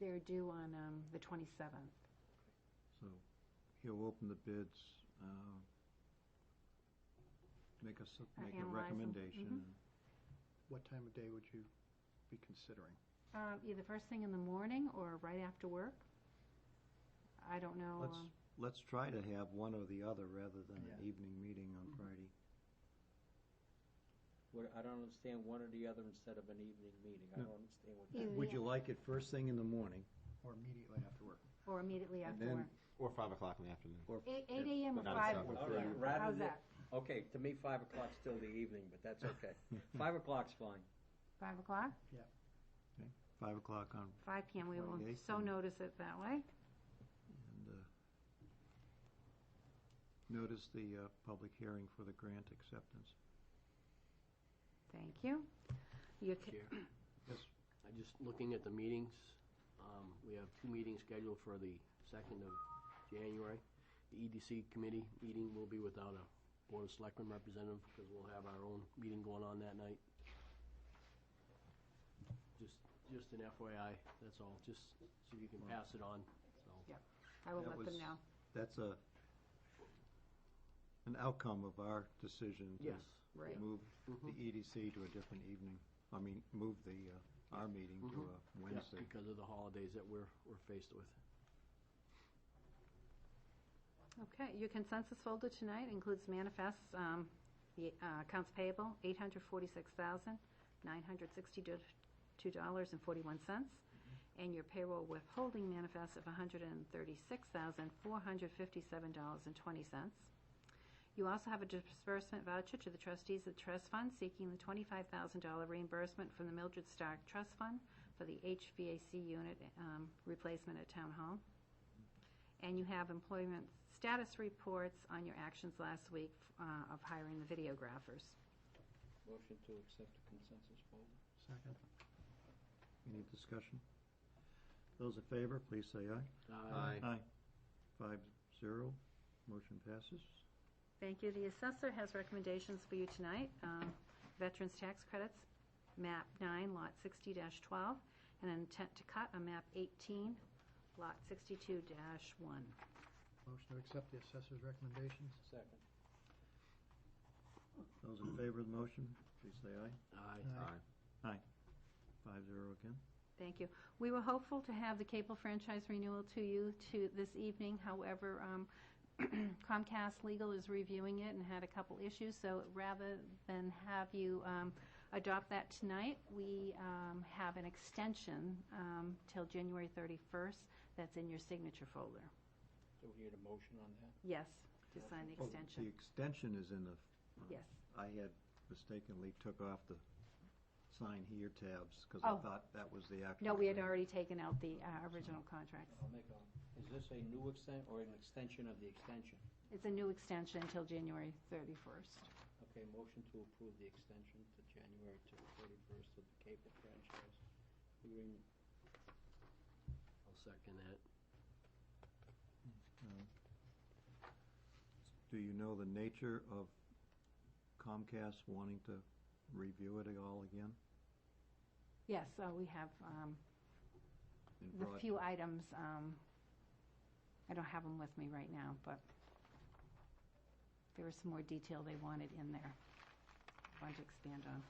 They're due on um, the 27th. So he'll open the bids, uh, make us, Uh, make a analyze 'em. Mm-hmm. recommendation. What time of day would you be considering? Um, Either first thing in the morning or right after work. I don't know. Let's, um, let's try to have one or the other rather than an Yeah. evening meeting on Mm-hmm. Mhm. Friday. What, I don't understand one or the other instead of an evening meeting. I No. don't understand what Either Would the- you like it first thing in the morning Or immediately after work? Or immediately And after then- work. Or five o'clock in the afternoon. or? Eight eight AM or Not five seven. All right, PM. rather How's than- that? Okay, to me, five o'clock's still the evening, but that's okay. Five o'clock's fine. Five o'clock? Five o'clock on, Five PM, we will 28th so and- notice it that way. and, uh, notice the, uh, public hearing for the grant acceptance. Thank you. You ca- Chair. Yes. I'm just looking at the meetings. Um, We have two meetings scheduled for the 2nd of January. The EDC committee meeting will be without a Board of Selectmen representative because we'll have our own meeting going on that night. Just, just an FYI, that's all, just so you can pass it on, so. I will That let was- them know. That's a, an outcome of our decision to Yes. Right. move the Mhm. EDC to a different evening, I mean, move the, uh, our meeting to Mhm. a Yeah, Wednesday. Because of the holidays that we're, we're faced with. Okay, your consensus folder tonight includes manifests, um, the uh, accounts payable, eight hundred forty-six thousand, nine hundred sixty-two dollars and forty-one cents, and your payroll withholding manifest of hundred and thirty-six thousand, four hundred fifty-seven dollars and twenty cents. You also have a disbursement voucher to the trustees of the trust fund seeking the twenty-five thousand dollar reimbursement from the Mildred Stark Trust Fund for the HVAC unit, um, replacement at Town Hall. And you have employment status reports on your actions last week uh, of hiring the videographers. Motion to accept the consensus vote. Second. Any discussion? Those in favor, please say aye. Aye. Aye. Five zero, motion passes. Thank you. The assessor has recommendations for you tonight. Um, Veterans Tax Credits, MAP 9, Lot 60-12, and an intent to cut on MAP 18, Lot 62-1. Motion to accept the assessor's recommendations? Second. Those in favor of the motion, please say aye. Aye. Aye. Five zero again. Thank you. We were hopeful to have the cable franchise renewal to you to this evening. However, um, Comcast Legal is reviewing it and had a couple issues, so rather than have you um, adopt that tonight, we um, have an extension um, till January 31st that's in your signature folder. Do we need a motion on that? Yes, to sign the Oh, The extension. extension is in the, Yes. I had mistakenly took off the sign here tabs because Oh. I thought that was the actual. No, we had agreement. already taken out the uh, original contracts. I'll make a, is this a new extent, or an extension of the extension? It's a new extension till January 31st. Okay, motion to approve the extension to January to thirty-first of the cable franchise agreement. I'll second that. Do you know the nature of Comcast wanting to review it all again? Yes, so we have um, in the broad- few items, um, I don't have them with me right now, but there was some more detail they wanted in there, wanted to expand on.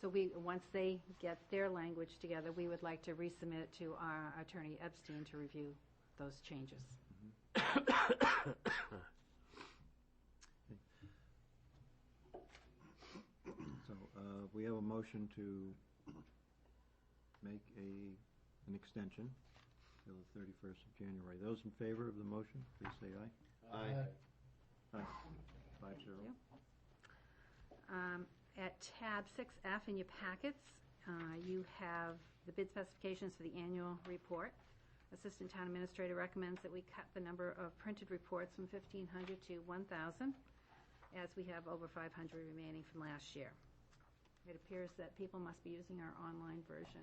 So we, once they get their language together, we would like to resubmit it to our attorney Epstein to review those changes. So, uh, we have a motion to make a, an extension till the thirty-first of January. Those in favor of the motion, please say aye. Uh, Aye. Five Thank zero. you. Um, At tab 6F in your packets, uh, you have the bid specifications for the annual report. Assistant Town Administrator recommends that we cut the number of printed reports from 1,500 to 1,000, as we have over 500 remaining from last year. It appears that people must be using our online version.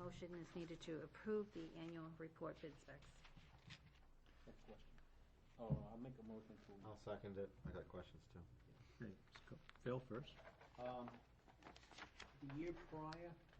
Motion is needed to approve the annual report bid specs. Next question. Oh, no, I'll make a motion to. I'll second it. I got questions too. Okay, let's go. Phil first. Um, The year prior,